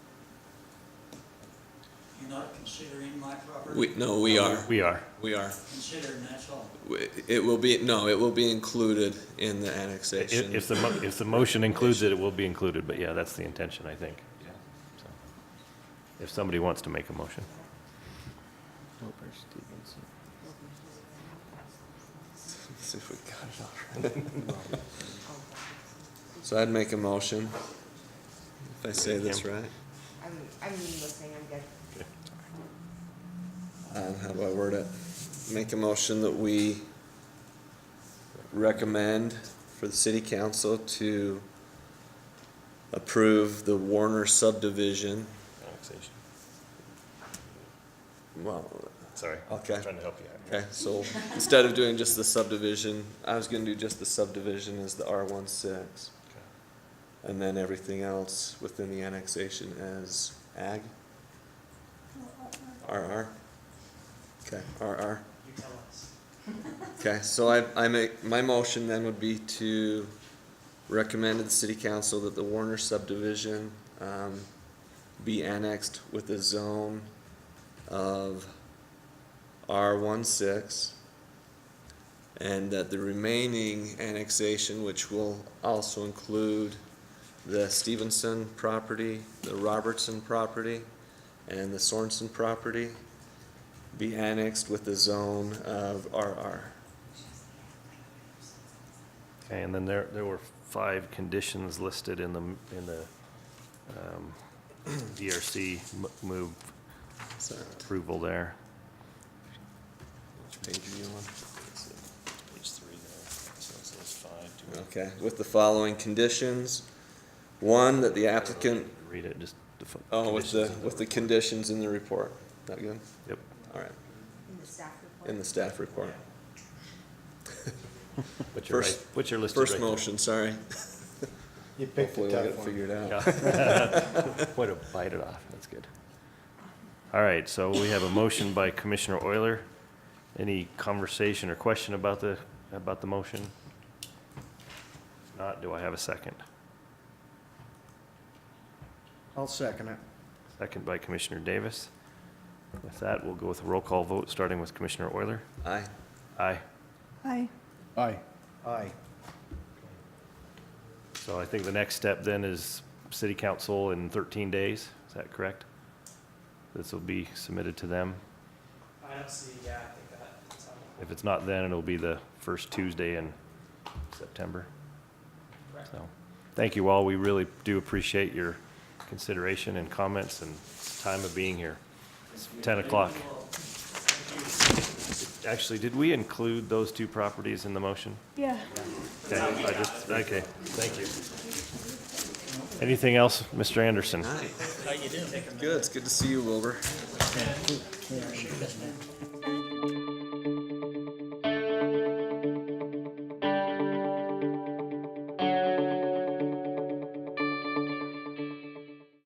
You're not considering my property? We, no, we are, We are. we are. Considering, that's all. We- It will be, no, it will be included in the If, annexation. if the, mo- if the motion includes it, it will be included, but yeah, that's the intention, I think. So, If somebody wants to make a motion. See if we got it already. So I'd make a motion, if I say this right. I'm, I'm listening, I'm good. Um, how do I word it? Make a motion that we recommend for the city council to approve the Warner subdivision. Annexation. Well, Sorry. Okay. Trying to help you out. okay, so instead of doing just the subdivision, I was gonna do just the subdivision as the R one six. And then everything else within the annexation as ag? RR? Okay, RR. You tell us. Okay, so I, I make, my motion then would be to recommend to the city council that the Warner subdivision, um, be annexed with a zone of R 16 And that the remaining annexation, which will also include the Stevenson property, the Robertson property, and the Sorenson property, be annexed with the zone of RR. Okay, and then there, there were five conditions listed in the, m- in the um, DRC m- move So, approval there. Which page are you on? Page three there, so it says five, Okay, with the following conditions. One, that the applicant, Read it, just. the fo- oh, with the, conditions in with the conditions in the report. That good? Yep, All right, In the staff report. in the staff report. which are right, First- which are listed right First there. motion, sorry. You picked Hopefully a we'll get it tough one. figured out. Yeah. Way to bite it off, that's good. All right, so we have a motion by Commissioner Euler. Any conversation or question about the, about the motion? If Not, do I have a second? I'll second it. Second by Commissioner Davis. With that, we'll go with a roll call vote, starting with Commissioner Euler. Aye. Aye. Aye. Aye. Aye. So I think the next step then is city council in 13 days, is that correct? This will be submitted to them. I don't see, yeah, I think that, sounds If it's not then, it'll be the first Tuesday in September. correct. So, thank you all. We really do appreciate your consideration and comments and time of being here. It's 10 o'clock. Actually, did we include those two properties in the motion? Yeah. Okay, I just- Okay, thank you. Anything else, Mr. Anderson? Hi. How you doing? Good, it's good to see you, Wilbur.